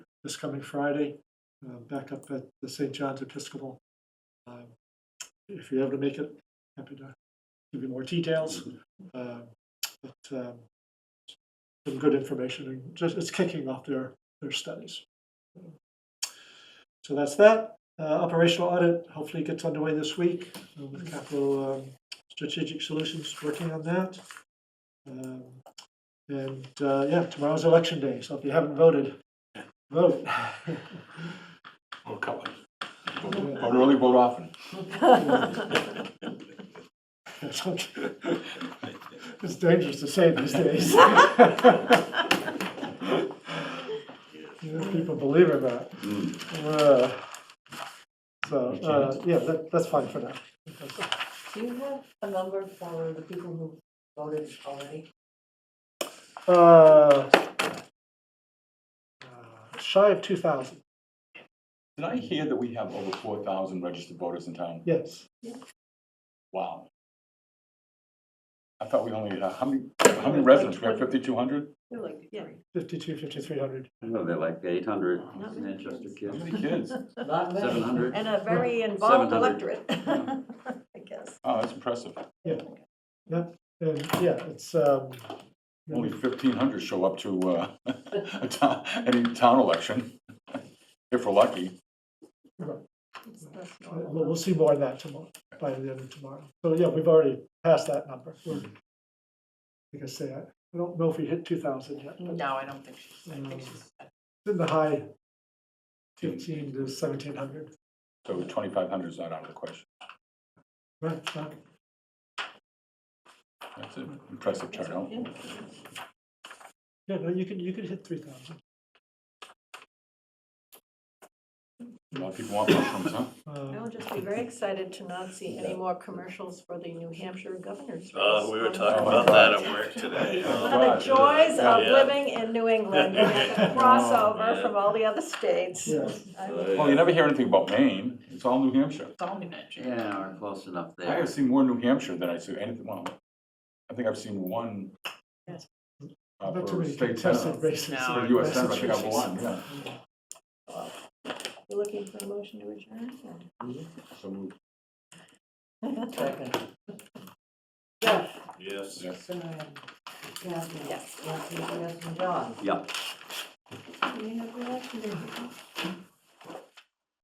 this coming Friday, uh, back up at the St. John's Episcopal. Um, If you're able to make it, happy to give you more details. Uh, But um, some good information and just, it's kicking off their, their studies. So that's that. Uh, Operational audit hopefully gets underway this week uh, with Capital um, Strategic Solutions working on that. Um, And uh, yeah, tomorrow's election day, so if you haven't voted, vote. Or couple. Vote early, vote often. It's dangerous to say these days. You know, People believe in that. Uh, So, uh, yeah, that, that's fine for now. Do you have a number for the people who voted already? Uh, uh, Shy of two thousand, Did I hear that we have over four thousand registered voters in town? yes. Wow. I thought we only, had uh, how many, how many residents? We have fifty-two hundred? They're like, yeah. Fifty-two, fifty-three hundred. I know, they're like eight hundred Not many Manchester kids. How kids, many kids? Not many. seven hundred. And a very involved 700. electorate, I guess. Oh, that's impressive. And yeah, it's, um, Only fifteen hundred show up to, uh, a town, any town election, if we're lucky. It's- that's normal. we'll, we'll see more of that tomorrow, by the end of tomorrow. So yeah, we've already passed that number. We're- Like I say, I I don't know if we hit two thousand yet, but No, I don't think she's, I think she's, it's in the high fifteen to seventeen hundred. So twenty-five hundred is not out of the question. Right, Doc? That's an impressive turnout. yeah, no, you can, you can hit three thousand. A lot of people want mushrooms, huh? I Uh, will just be very excited to not see any more commercials for the New Hampshire governor's race. Uh, we were on talking Oh my about God. that at work today. One of the joys of Yeah. Oh, living in New England, you have to cross over from all the other states. Yeah. I- Uh, Well, you never hear anything about Maine. It's all New Hampshire. Yeah, we're close enough I there. have seen more New Hampshire than I see anything, well, I think I've seen one. Yes. uh, Not too For many state contested senate, races. No, for in US Senate, I think I've Massachusetts. won, yeah. You looking for a motion to adjourn? or- So moved, second. Yes. yes. Yes. Yes, and John. Yep. Do we have reaction?